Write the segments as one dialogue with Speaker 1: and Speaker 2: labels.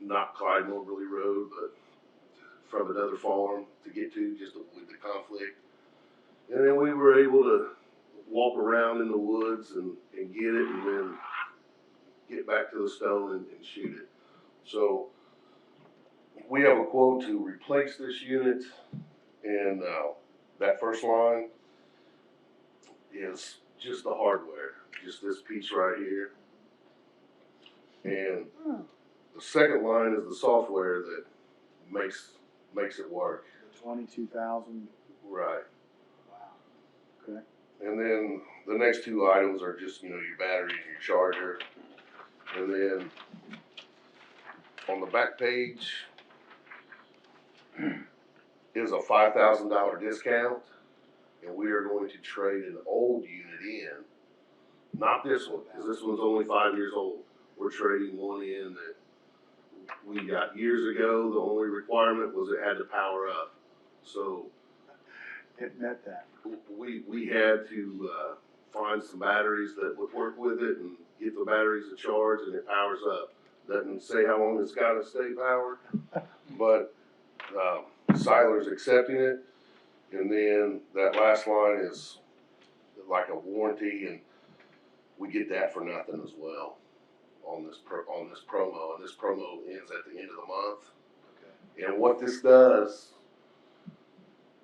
Speaker 1: not Clyde Moberly Road, but from another farm to get to, just to avoid the conflict. And then we were able to walk around in the woods and, and get it and then get back to the stone and, and shoot it. So we have a quote to replace this unit and, uh, that first line is just the hardware, just this piece right here. And the second line is the software that makes, makes it work.
Speaker 2: Twenty-two thousand,
Speaker 1: Right.
Speaker 2: wow, okay.
Speaker 1: And then the next two items are just, you know, your battery and your charger. And then on the back page is a five thousand dollar discount. And we are going to trade an old unit in, not this one, cause this one's only five years old. We're trading one in that we got years ago. The only requirement was it had to power up. So
Speaker 2: It met that.
Speaker 1: we, we had to, uh, find some batteries that would work with it and get the batteries to charge and it powers up. Doesn't say how long it's gotta stay powered, but, um, Siler's accepting it. And then that last line is like a warranty and we get that for nothing as well on this pro, on this promo. And this promo ends at the end of the month. And what this does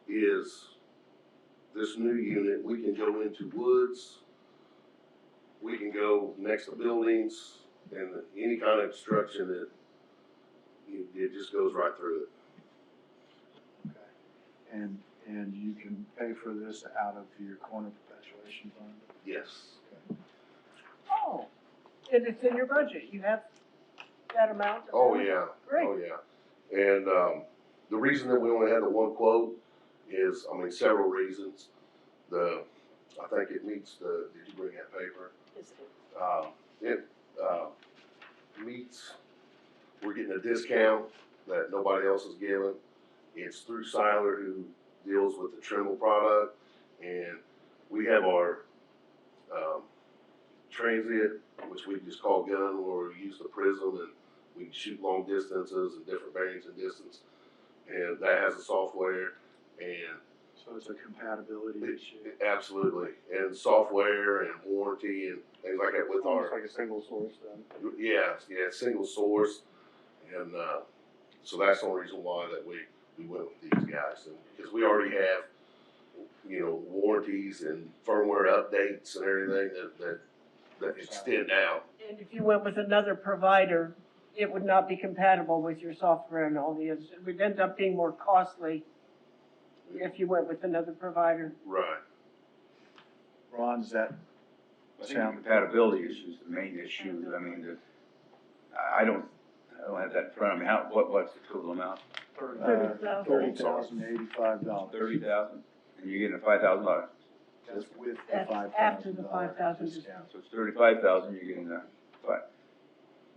Speaker 1: is this new unit, we can go into woods, we can go next to buildings, and any kind of obstruction that, it, it just goes right through it.
Speaker 2: Okay. And, and you can pay for this out of your corner perpetuation fund?
Speaker 1: Yes.
Speaker 3: Oh, and it's in your budget, you have that amount?
Speaker 1: Oh, yeah.
Speaker 3: Great,
Speaker 1: Oh, yeah. And, um, the reason that we only had the one quote is, I mean, several reasons. The, I think it meets the, did you bring that paper? Um, it, uh, meets, we're getting a discount that nobody else is giving. It's through Siler who deals with the Trimble product, and we have our, um, transient, which we just call gun, where we use the prism and we can shoot long distances and different bearings and distance. And that has the software and
Speaker 2: So it's a compatibility
Speaker 1: It-
Speaker 2: issue?
Speaker 1: Absolutely, and software and warranty and things like that with
Speaker 2: Almost
Speaker 1: our,
Speaker 2: like a single source then?
Speaker 1: yeah, yeah, single source. And, uh, so that's the only reason why that we, we went with these guys, and, because we already have, you know, warranties and firmware updates and everything that, that, that extend out.
Speaker 3: and if you went with another provider, it would not be compatible with your software and all the, it would end up being more costly if you went with another provider.
Speaker 1: Right,
Speaker 2: Ron's that,
Speaker 4: I think the compatibility issue is the main issue, I mean, the, I, I don't, I don't have that in front of me, how, what, what's the total amount?
Speaker 2: uh, thirty thousand eighty-five dollars.
Speaker 4: Thirty thousand, and you're getting a five thousand dollar,
Speaker 2: That's with the
Speaker 3: That's
Speaker 2: five thousand dollar discount.
Speaker 3: after the $5,000 discount.
Speaker 4: so it's thirty-five thousand, you're getting a, but,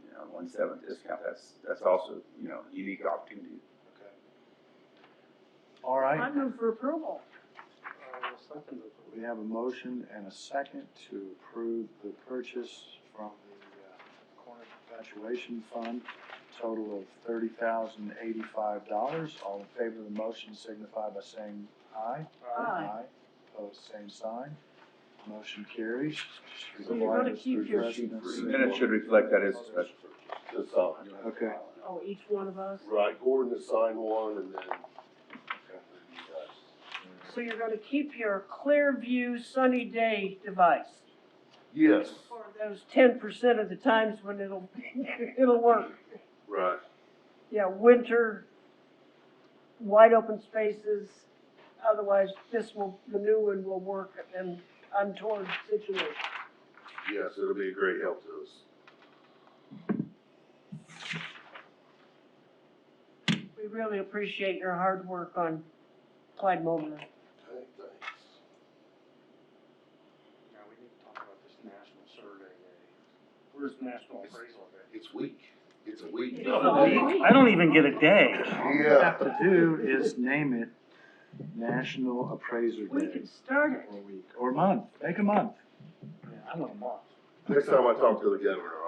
Speaker 4: you know, one seventh discount, that's, that's also, you know, unique opportunity.
Speaker 2: Okay. All right.
Speaker 3: I move for approval.
Speaker 2: We have a motion and a second to approve the purchase from the uh, Corner Perpetuation Fund, total of thirty thousand eighty-five dollars. All in favor of the motion signify by saying aye.
Speaker 3: Aye.
Speaker 2: Opposed, same sign. Motion carries.
Speaker 3: So you're gonna keep your-
Speaker 4: The minutes should reflect that as a special.
Speaker 1: that's all.
Speaker 2: Okay.
Speaker 3: Oh, each one of us?
Speaker 1: Right, Gordon has signed one and then.
Speaker 3: So you're gonna keep your Clearview Sunny Day device?
Speaker 1: Yes,
Speaker 3: For those ten percent of the times when it'll, it'll work.
Speaker 1: right,
Speaker 3: Yeah, winter, wide open spaces, otherwise this will, the new one will work in untoward situation.
Speaker 1: yes, it'll be a great help to us.
Speaker 3: We really appreciate your hard work on Clyde Mobley.
Speaker 1: Okay, thanks.
Speaker 5: Now, we need to talk about this national survey day. Where's national appraisal day?
Speaker 1: It's weak. It's a week.
Speaker 3: It's all week.
Speaker 6: I don't even get a day.
Speaker 2: All we have to do is name it National Appraiser
Speaker 3: We
Speaker 2: Day
Speaker 3: could start
Speaker 2: or week, or month. Make a month.
Speaker 5: I want a month.
Speaker 1: Next time I talk to the governor,